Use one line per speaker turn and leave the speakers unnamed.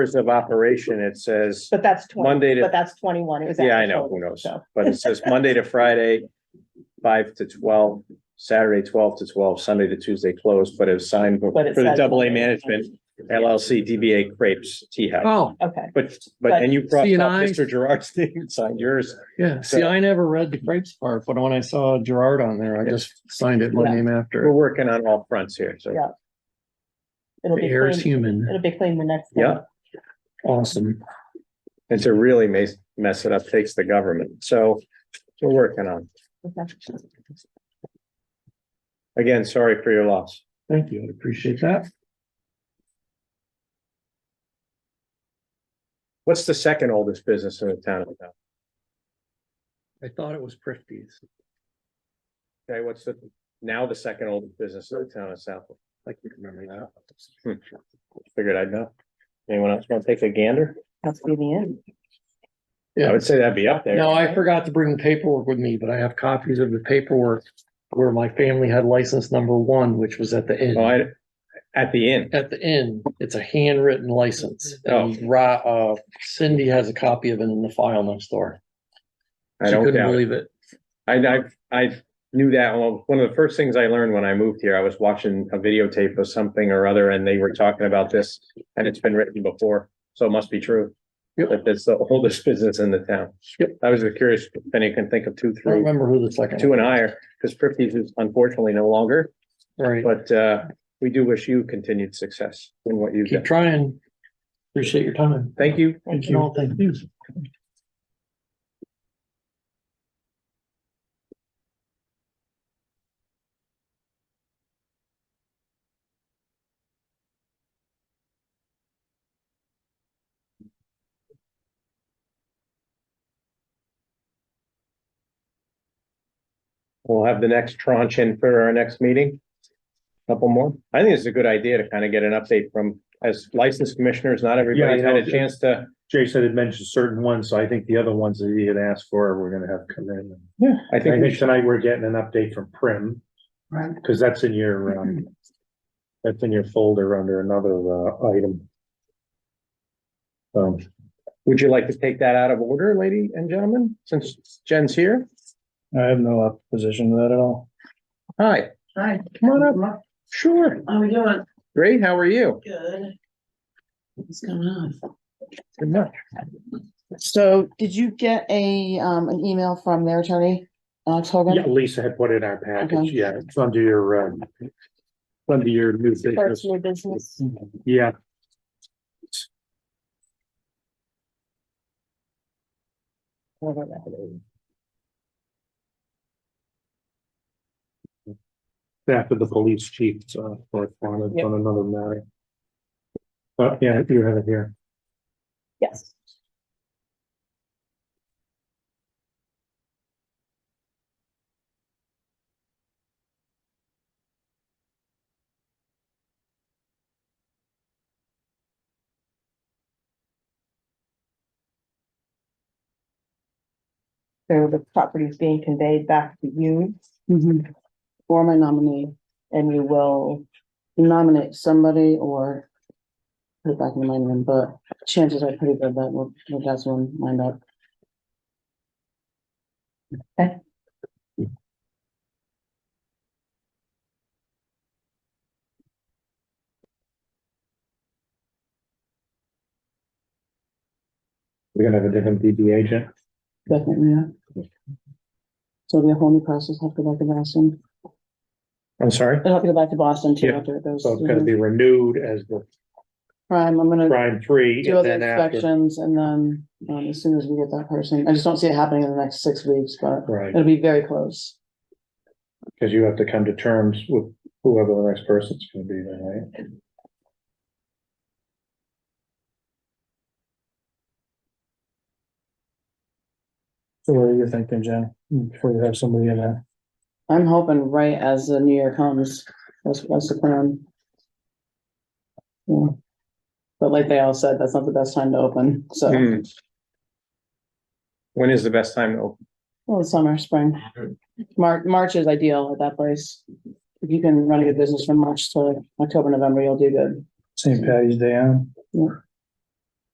hours of operation, it says
But that's twenty,
Monday to,
but that's twenty-one. It was.
yeah, I
actual,
know, who knows?
So,
But it says Monday to Friday, five to twelve, Saturday twelve to twelve, Sunday to Tuesday closed, but it's signed for
But it
for the
says-
double A management LLC DBA Crepes Tea House.
Oh,
okay,
But, but, and you crossed out
C&I.
Mr. Gerard's name, and signed yours.
yeah. See,
So-
I never read the crepes part, but when I saw Gerard on there, I just signed it one
Yeah.
name
We're
after.
working on all fronts here, so.
Yeah. it'll
The
be
air is
clean,
human.
it'll be clean the next.
Yeah.
time.
Awesome.
And to really mess, mess it up takes the government. So we're working on.
Okay.
Again, sorry for your loss.
Thank you. I appreciate that.
What's the second oldest business in the town?
I thought it was Prifties.
Okay, what's the, now the second oldest business in the town of Southwick?
I can remember
Hmm.
that.
Figured I'd know. Anyone else want to take a gander?
That's be the end.
I would say that'd be up there.
No, I forgot to bring the paperwork with me, but I have copies of the paperwork where my family had license number one, which was at the inn.
Oh, I, at the inn.
At the inn, it's a handwritten license.
Oh.
And Ra, uh, Cindy has a copy of it in the file next door.
I
She
don't
couldn't
doubt it.
believe it.
I, I, I knew that. Well, one of the first things I learned when I moved here, I was watching a videotape of something or other and they were talking about this. And it's been written before, so it must be true.
Yep.
That that's the oldest business in the town.
Yep.
I was curious if any can think of two,
I don't
through
remember who the second.
two
one
and higher, because Prifties is unfortunately no longer,
Right.
but, uh, we do wish you continued success in what you do.
Keep trying. Appreciate your time.
Thank you.
Thank you. all. Thank you.
We'll have the next tranche in for our next meeting. Couple more. I think it's a good idea to kind of get an update from, as licensed commissioners, not everybody's
you
had
know,
a chance to.
Jason had mentioned certain ones, so I think the other ones that he had asked for, we're gonna have come in.
Yeah. I
I
think we
think
should,
tonight we're getting an update from Prim. Right. Cause that's in your, um, that's in your folder under another, uh, item. Um,
would you like to take that out of order, lady and gentlemen, since Jen's here?
I have no opposition to that at all.
Hi,
Hi.
come on up. Sure.
How are we doing?
Great. How are you?
Good. What's going on?
Good much.
So did you get a, um, an email from their attorney, Alex Hogan?
yeah, Lisa had put it in our
Okay.
package, yeah, it's under your, um, it's under your new business,
First new business.
yeah.
Whatever that is.
After the police chief, uh, correspondence
Yep.
on another matter. But, yeah, you have it here.
Yes. So the property is being conveyed back to you
For my nominee,
and you will,
nominate somebody or put it back in the mind room, but chances are pretty good that we'll, we'll have someone lined up.
We're gonna have a different DB agent.
Definitely, yeah. So it'll be a whole new process, have to go back to Boston,
I'm sorry?
it'll have to go back to Boston too
Yeah.
after it goes.
So it's gonna be renewed as the
Prime, I'm gonna.
prime three
do
and
other
then after.
inspections and then, um, as soon as we get that person, I just don't see it happening in the next six weeks, but
Right,
it'll be very close.
because you have to come to terms with whoever the next person's gonna be then, right?
So what are you thinking, Jen, before you have somebody in there?
I'm hoping right as the new year comes, that's, that's the plan. Yeah. But like they all said, that's not the best time to open, so,
Hmm. When is the best time to open?
well, summer, spring. Mar- March is ideal at that place. If you can run a good business from March to October, November, you'll do good.
St. Patty's Day on?
Yeah.